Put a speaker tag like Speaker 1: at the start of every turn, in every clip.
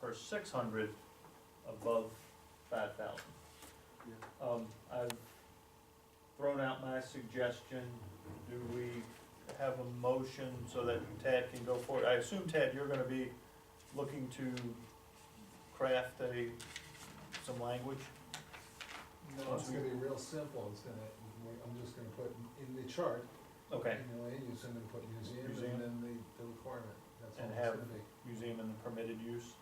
Speaker 1: for six hundred above five thousand. Um, I've thrown out my suggestion, do we have a motion so that Tad can go forward? I assume Tad, you're gonna be looking to craft a, some language?
Speaker 2: No, it's gonna be real simple, it's gonna, I'm just gonna put in the chart, you
Speaker 1: Okay,
Speaker 2: know, land use, I'm gonna put museum
Speaker 1: Museum.
Speaker 2: and then the, the requirement, that's all
Speaker 1: And
Speaker 2: it's
Speaker 1: have-
Speaker 2: gonna be.
Speaker 1: museum and the permitted use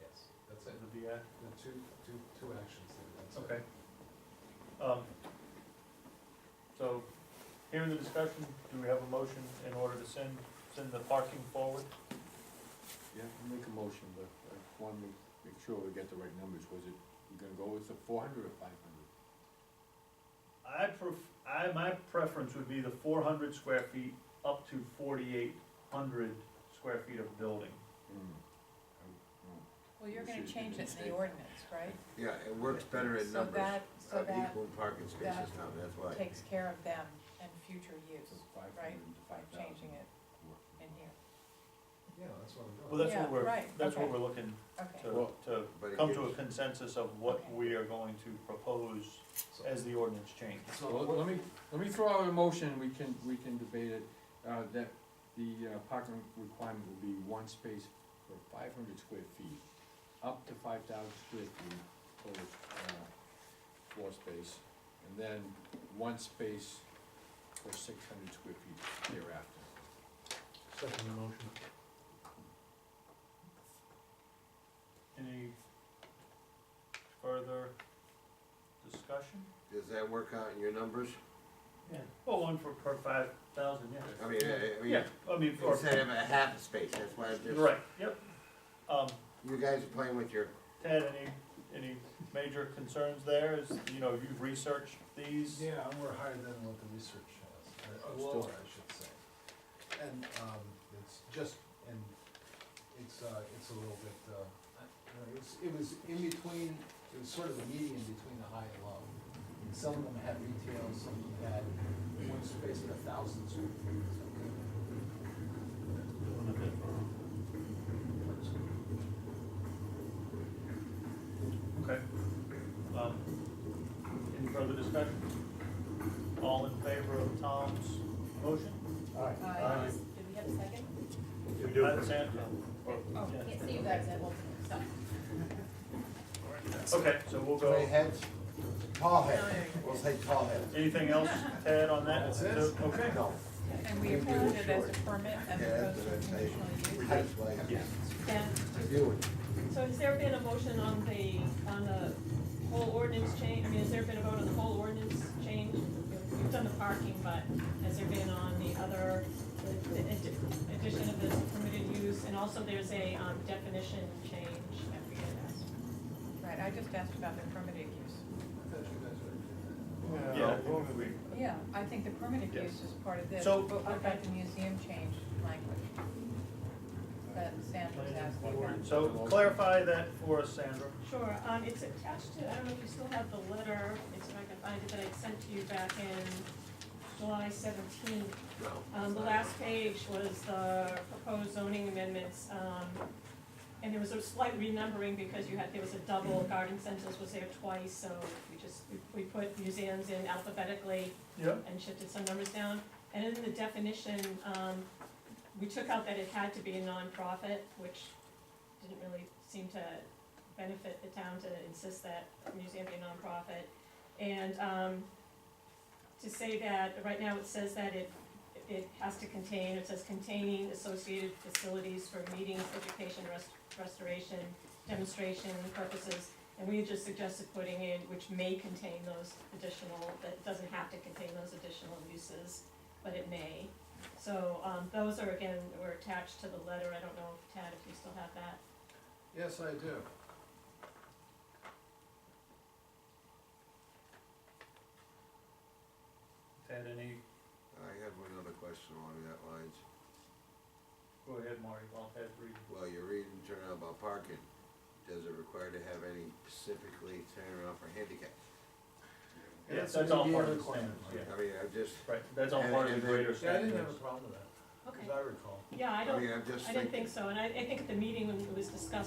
Speaker 2: Yes. That's
Speaker 1: of
Speaker 2: it,
Speaker 1: the DI,
Speaker 2: the two, two, two actions there, that's it.
Speaker 1: okay. Um, so, here in the discussion, do we have a motion in order to send, send the parking forward?
Speaker 3: Yeah, I'll make a motion, but I wanna make, make sure we get the right numbers, was it, you gonna go with the four hundred or five
Speaker 1: I
Speaker 3: hundred?
Speaker 1: pref, I, my preference would be the four hundred square feet up to forty-eight hundred square feet of building.
Speaker 4: Well, you're gonna
Speaker 3: Should be
Speaker 4: change it in the
Speaker 3: mistake.
Speaker 4: ordinance, right?
Speaker 5: Yeah, it works better in
Speaker 4: So
Speaker 5: numbers
Speaker 4: that, so
Speaker 5: of
Speaker 4: that
Speaker 5: equal parking
Speaker 4: that
Speaker 5: spaces now, that's why.
Speaker 4: takes care of them and future use
Speaker 3: So five hundred to
Speaker 4: by
Speaker 3: five thousand.
Speaker 4: changing it in here.
Speaker 2: Yeah, that's what I'm doing.
Speaker 1: Well, that's
Speaker 4: Yeah,
Speaker 1: what we're,
Speaker 4: right,
Speaker 1: that's what
Speaker 4: okay.
Speaker 1: we're looking
Speaker 4: Okay,
Speaker 1: to, to
Speaker 5: But it
Speaker 1: come to a
Speaker 5: gives-
Speaker 1: consensus of what
Speaker 4: Okay.
Speaker 1: we are going to propose
Speaker 2: So-
Speaker 1: as the ordinance change.
Speaker 2: so
Speaker 3: Well,
Speaker 2: what-
Speaker 3: let me, let me throw out a motion, we can, we can debate it, uh, that the uh, parking requirement will be one space for five hundred square feet, up to five thousand square feet for, uh, floor space, and then one space for six hundred square feet thereafter.
Speaker 2: Second motion.
Speaker 1: Any further discussion?
Speaker 5: Does that work out in your numbers?
Speaker 1: Yeah. Well, one for per five thousand, yeah.
Speaker 5: I mean, I, I mean,
Speaker 1: Yeah, I mean, for,
Speaker 5: instead of a half a space, that's why I'm just,
Speaker 1: right, yep. Um,
Speaker 5: you guys are playing with your,
Speaker 1: Ted, any, any major concerns there? Is, you know, you've researched these?
Speaker 2: Yeah, and we're higher than what the research shows, or-
Speaker 3: Well-
Speaker 2: or lower, I should say. And, um, it's just, and it's, uh, it's a little bit, uh, you know, it was, it was in between, it was sort of a median between the high and low. Some of them had retail, some of them had one space but a thousand square feet. so it could-
Speaker 1: Okay. Um, Any further discussion? All in favor of Tom's motion?
Speaker 4: uh, did we have a second?
Speaker 1: We do. By Sandra?
Speaker 4: Oh,
Speaker 1: Yeah.
Speaker 4: can't see you guys, I will, stop.
Speaker 1: Okay, so we'll
Speaker 5: tall
Speaker 1: go,
Speaker 5: heads, tall
Speaker 6: Oh,
Speaker 4: No, no,
Speaker 5: heads,
Speaker 4: no.
Speaker 5: we'll say tall heads.
Speaker 1: anything else, Ted, on that?
Speaker 2: That's it.
Speaker 1: Okay.
Speaker 5: No,
Speaker 4: And we
Speaker 5: You do
Speaker 4: approved
Speaker 5: it
Speaker 4: it as a
Speaker 5: short.
Speaker 4: permit
Speaker 5: yeah,
Speaker 4: as opposed
Speaker 5: that's what
Speaker 4: to a
Speaker 5: I'm saying,
Speaker 4: conditional use.
Speaker 5: reduce like,
Speaker 1: Yeah.
Speaker 6: Dan,
Speaker 5: do it.
Speaker 6: so has there been a motion on the, on the whole ordinance change, I mean, has there been a vote on the whole ordinance change? You've done the parking, but has there been on the other, the addi- addition of this permitted use? And also there's a um, definition change that we had asked.
Speaker 4: Right, I just asked about the permitted use.
Speaker 2: I thought you guys were-
Speaker 1: Yeah, we-
Speaker 4: Yeah, I think the permitted
Speaker 1: Yes.
Speaker 4: use is part of this,
Speaker 1: So-
Speaker 4: but what about the museum change language? That Sandra's asking about.
Speaker 1: So clarify that for us, Sandra.
Speaker 6: Sure, um, it's attached to, I don't know if you still have the letter, it's, if I can find it, that I sent to you back in July seventeenth.
Speaker 5: No.
Speaker 6: Um, the last page was the proposed zoning amendments, um, and there was a slight renumbering because you had, there was a double, garden centers was there twice, so we just, we, we put museums in alphabetically
Speaker 1: Yeah.
Speaker 6: and shifted some numbers down. And in the definition, um, we took out that it had to be a nonprofit, which didn't really seem to benefit the town to insist that a museum be a nonprofit. And, um, to say that, right now it says that it, it has to contain, it says containing associated facilities for meetings, education, rest, restoration, demonstration purposes. And we had just suggested putting in, which may contain those additional, that it doesn't have to contain those additional uses, but it may. So, um, those are again, were attached to the letter, I don't know, Tad, if you still have that.
Speaker 2: Yes, I do.
Speaker 1: Ted, any,
Speaker 5: I have another question along that lines,
Speaker 1: go ahead, Marty, while Ted's reading.
Speaker 5: while you're reading, turn out about parking, does it require to have any specifically turnaround for handicap?
Speaker 1: Yeah,
Speaker 2: That's
Speaker 1: that's all
Speaker 2: a
Speaker 1: part of the
Speaker 2: requirement.
Speaker 1: standards, yeah.
Speaker 5: I mean, I'm just,
Speaker 1: Right, that's all part of the greater
Speaker 2: Yeah, I didn't have a
Speaker 1: standards.
Speaker 2: problem with that, as
Speaker 6: Okay.
Speaker 2: I recall.
Speaker 6: Yeah, I
Speaker 5: I
Speaker 6: don't,
Speaker 5: mean, I'm just
Speaker 6: I
Speaker 5: thinking.
Speaker 6: didn't think so, and I, I think at the meeting when it was discussed,